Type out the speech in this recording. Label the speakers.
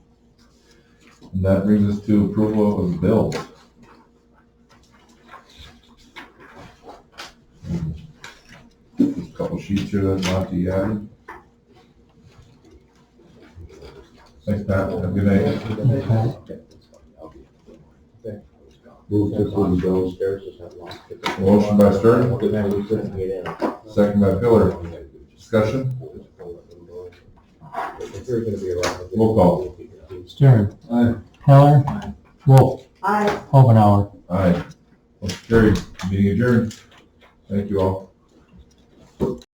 Speaker 1: And that brings us to approval of bills. Just a Couple sheets here that's not to be added. Thanks, Pat. Have a good night. Move to approve the bills. Motion by Stern. Second by Pillar. Discussion? Roll call.
Speaker 2: Stern.
Speaker 1: Aye.
Speaker 2: Heller. Wolf.
Speaker 3: Aye.
Speaker 2: Hobenhour.
Speaker 1: Aye. Motion carried. Meeting adjourned. Thank you all.